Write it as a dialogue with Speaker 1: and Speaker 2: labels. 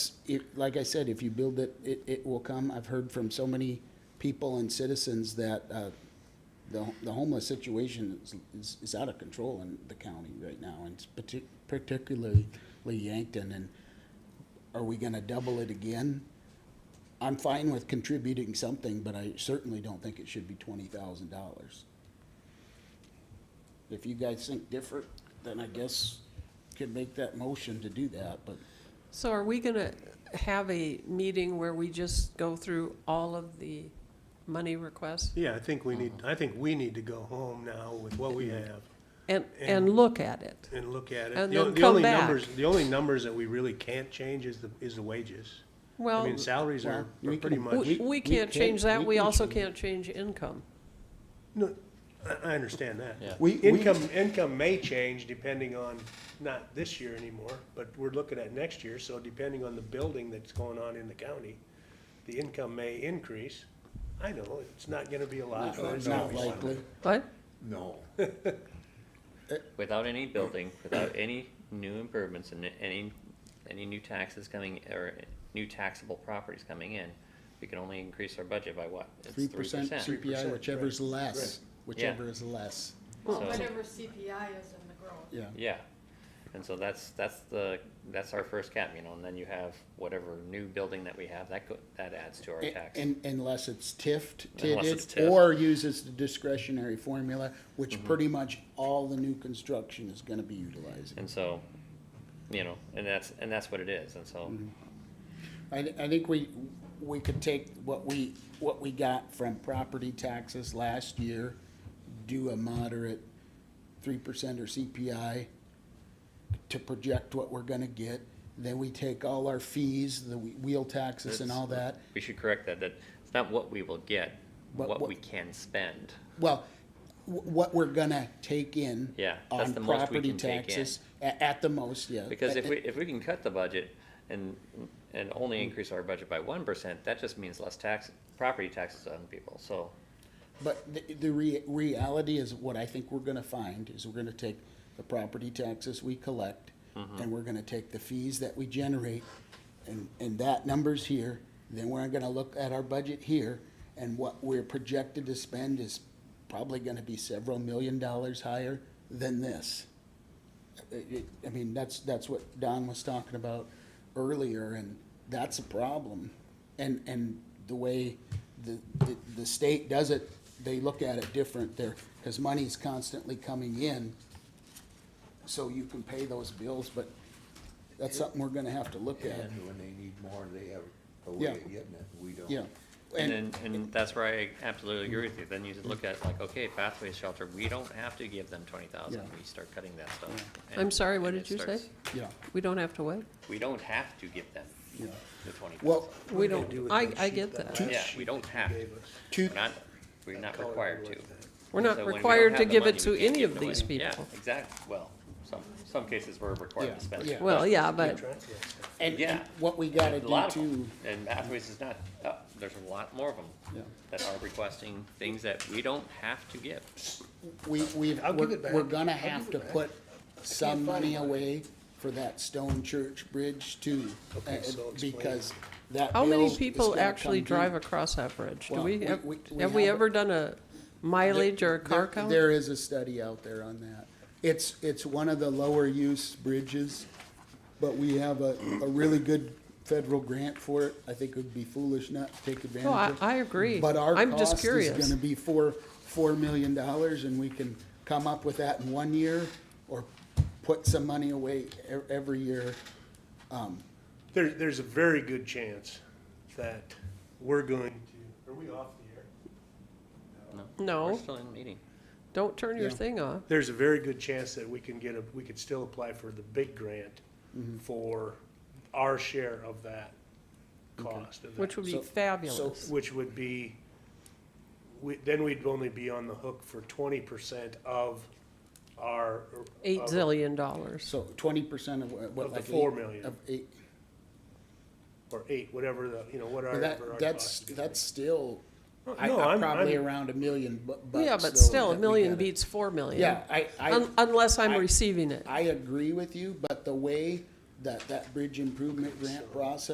Speaker 1: it, like I said, if you build it, it, it will come. I've heard from so many people and citizens that, uh, the, the homeless situation is, is, is out of control in the county right now, and it's partic- particularly Yankton, and are we gonna double it again? I'm fine with contributing something, but I certainly don't think it should be twenty thousand dollars. If you guys think different, then I guess could make that motion to do that, but
Speaker 2: So are we going to have a meeting where we just go through all of the money requests?
Speaker 3: Yeah, I think we
Speaker 2: Uh-huh.
Speaker 3: need, I think we need to go home now with what we have
Speaker 2: And,
Speaker 3: And-
Speaker 2: and look at it?
Speaker 3: and look at it.
Speaker 2: And
Speaker 3: The o-
Speaker 2: then
Speaker 3: the
Speaker 2: come
Speaker 3: only
Speaker 2: back.
Speaker 3: numbers- The only numbers that we really can't change is the, is the wages. I
Speaker 2: Well,
Speaker 3: mean, salaries are
Speaker 1: Well,
Speaker 3: are
Speaker 1: we
Speaker 3: pretty
Speaker 1: can-
Speaker 3: much,
Speaker 2: we,
Speaker 1: we-
Speaker 2: we
Speaker 1: we
Speaker 2: can't
Speaker 1: can-
Speaker 2: change that,
Speaker 1: we
Speaker 2: we
Speaker 1: can
Speaker 2: also
Speaker 1: change-
Speaker 2: can't change income.
Speaker 3: no, I, I understand that.
Speaker 4: Yeah.
Speaker 1: We- we-
Speaker 3: Income, income may change depending on, not this year anymore, but we're looking at next year, so depending on the building that's going on in the county, the income may increase. I know, it's not gonna be a lot. but
Speaker 1: Uh, it's
Speaker 3: it's
Speaker 1: not
Speaker 3: gonna be
Speaker 1: likely.
Speaker 3: something.
Speaker 2: What?
Speaker 5: No.
Speaker 4: without any building, without any new improvements and any, any new taxes coming, or new taxable properties coming in, we can only increase our budget by what? It's
Speaker 1: three percent
Speaker 3: 3%,
Speaker 1: CPI,
Speaker 3: right,
Speaker 1: whichever's less, whichever
Speaker 4: Yeah.
Speaker 1: is less,
Speaker 4: So-
Speaker 6: Whatever CPI is in the growth.
Speaker 1: yeah.
Speaker 4: Yeah, and so that's, that's the, that's our first cap, you know, and then you have whatever new building that we have, that go, that adds to our
Speaker 1: A-
Speaker 4: tax.
Speaker 1: And, unless it's TIFT,
Speaker 4: Unless it's
Speaker 1: TIDD,
Speaker 4: TIFT.
Speaker 1: or uses the discretionary formula,
Speaker 4: Mm-hmm.
Speaker 1: which pretty much all the new construction is gonna be utilizing.
Speaker 4: And so, you know, and that's, and that's what it is, and so,
Speaker 1: Mm-hmm. I, thi- I think we, we could take what we, what we got from property taxes last year, do a moderate three percent or CPI to project what we're gonna get, then we take all our fees, the whe- wheel taxes and
Speaker 4: That's-
Speaker 1: all that,
Speaker 4: we should correct that, that it's not what we will get,
Speaker 1: But
Speaker 4: what
Speaker 1: what-
Speaker 4: we can spend.
Speaker 1: Well, wh- what we're gonna take in.
Speaker 4: Yeah, that's
Speaker 1: on
Speaker 4: the most we
Speaker 1: property
Speaker 4: can take in.
Speaker 1: taxes a- At the Mm-hmm. most, yeah.
Speaker 4: Because if
Speaker 1: A-
Speaker 4: we, if we can cut the budget and, and only increase our budget by one percent, that just means less tax, property taxes on people, so.
Speaker 1: But the, the rea- reality is what I think we're gonna find is we're gonna take the property taxes we collect and we're gonna take the fees that we generate and, and that number's here. Then we're gonna look at our budget here and what we're projected to spend is probably gonna be several million dollars higher than this. It- it- I mean, that's, that's what Don was talking about earlier, and that's a problem. And, and the way the, the, the state does it, they look at it different there, because money's constantly coming in, so you can pay those bills, but that's something we're gonna have to look at,
Speaker 5: And when they need more, they have a way
Speaker 1: Yeah.
Speaker 5: of getting it, we don't.
Speaker 1: yeah.
Speaker 4: And then, and that's where I absolutely agree with you, then you look at like, okay, pathways shelter, we don't have to give them twenty thousand,
Speaker 1: Yeah.
Speaker 4: we start cutting that stuff.
Speaker 1: Yeah.
Speaker 4: and-
Speaker 2: I'm sorry, what
Speaker 4: and
Speaker 2: did
Speaker 4: it
Speaker 2: you say?
Speaker 4: starts-
Speaker 1: Yeah,
Speaker 2: We don't have to wait?
Speaker 4: We don't have to give them
Speaker 1: yeah.
Speaker 4: the twenty
Speaker 1: Well,
Speaker 4: thousand,
Speaker 2: We
Speaker 3: do you
Speaker 2: don't,
Speaker 3: do with
Speaker 2: I,
Speaker 3: that
Speaker 2: I
Speaker 3: sheet
Speaker 2: get
Speaker 3: that
Speaker 2: that.
Speaker 3: last
Speaker 4: yeah,
Speaker 3: sheet
Speaker 4: we don't
Speaker 3: you
Speaker 4: have, to.
Speaker 3: gave us?
Speaker 1: Two,
Speaker 4: we're not, we're not
Speaker 3: Color
Speaker 4: required
Speaker 3: blue, I
Speaker 4: to.
Speaker 3: think.
Speaker 2: We're
Speaker 4: And
Speaker 2: not
Speaker 4: so when we don't
Speaker 2: required
Speaker 4: have
Speaker 2: to
Speaker 4: the
Speaker 2: give it
Speaker 4: money, we
Speaker 2: to
Speaker 4: can't
Speaker 2: any
Speaker 4: give
Speaker 2: of
Speaker 4: it away.
Speaker 2: these
Speaker 4: Yeah,
Speaker 2: people.
Speaker 4: exactly, well, some, some cases we're required
Speaker 1: Yeah,
Speaker 4: to spend.
Speaker 1: yeah.
Speaker 4: it.
Speaker 2: Well, yeah, but,
Speaker 3: Track that.
Speaker 1: and, and
Speaker 4: Yeah.
Speaker 1: what we
Speaker 4: A
Speaker 1: gotta
Speaker 4: lot
Speaker 1: do
Speaker 4: of 'em.
Speaker 1: too,
Speaker 4: And Pathways is not, uh, there's a lot more of
Speaker 1: Yeah.
Speaker 4: them that are requesting things that we don't have to give.
Speaker 1: we, we,
Speaker 3: I'll give
Speaker 1: we're,
Speaker 3: it back.
Speaker 1: we're gonna
Speaker 3: I'll give
Speaker 1: have
Speaker 3: it
Speaker 1: to
Speaker 3: back.
Speaker 1: put some
Speaker 3: find
Speaker 1: money
Speaker 3: mine.
Speaker 1: away for that stone church bridge too.
Speaker 3: Okay,
Speaker 1: uh,
Speaker 3: so explain.
Speaker 1: Because that
Speaker 2: how
Speaker 1: bill
Speaker 2: many
Speaker 1: is
Speaker 2: people
Speaker 1: gonna
Speaker 2: actually
Speaker 1: come due.
Speaker 2: drive across that bridge? Do
Speaker 1: Well,
Speaker 2: we,
Speaker 1: we-
Speaker 2: have
Speaker 1: we- we
Speaker 2: have we
Speaker 1: have-
Speaker 2: ever done a mileage or a car
Speaker 1: There-
Speaker 2: count?
Speaker 1: There is a study out there on that. It's, it's one of the lower use bridges, but we have a, a really good federal grant for it. I think it would be foolish not to take advantage
Speaker 2: No, Oh, I,
Speaker 1: of it.
Speaker 2: I agree.
Speaker 1: But our
Speaker 2: I'm just
Speaker 1: cost is
Speaker 2: curious.
Speaker 1: gonna be four, four million dollars, and we can come up with that in one year, or put some money away e- every year.
Speaker 3: There, there's a very good chance that we're going to, are we off the air?
Speaker 2: No.
Speaker 4: We're still in meeting.
Speaker 2: Don't turn your
Speaker 1: Yeah.
Speaker 2: thing off.
Speaker 3: There's a very good chance that we can get a, we could still apply for the big grant
Speaker 1: Mm-hmm.
Speaker 3: for our share of that cost. of that.
Speaker 2: Which would be
Speaker 1: So- so-
Speaker 2: fabulous.
Speaker 3: Which would be, we, then we'd only be on the hook for twenty percent of our.
Speaker 2: Eight
Speaker 3: of-
Speaker 2: zillion dollars.
Speaker 1: So twenty percent of what- what?
Speaker 3: Of the
Speaker 1: like eight-
Speaker 3: four million.
Speaker 1: Of eight,
Speaker 3: Or eight, whatever the, you know,
Speaker 1: Well,
Speaker 3: whatever our
Speaker 1: that,
Speaker 3: cost.
Speaker 1: that's,
Speaker 3: is.
Speaker 1: that's still,
Speaker 3: No,
Speaker 1: I,
Speaker 3: I'm-
Speaker 1: I'm probably
Speaker 3: I'm-
Speaker 1: around a million bu- bucks.
Speaker 2: Yeah, but
Speaker 1: though,
Speaker 2: still, a
Speaker 1: that we
Speaker 2: million
Speaker 1: gotta-
Speaker 2: beats Um, four million.
Speaker 1: Yeah, I, I,
Speaker 2: Un- Unless I'm
Speaker 1: I-
Speaker 2: receiving it.
Speaker 1: I agree with you, but the way that that bridge improvement grant process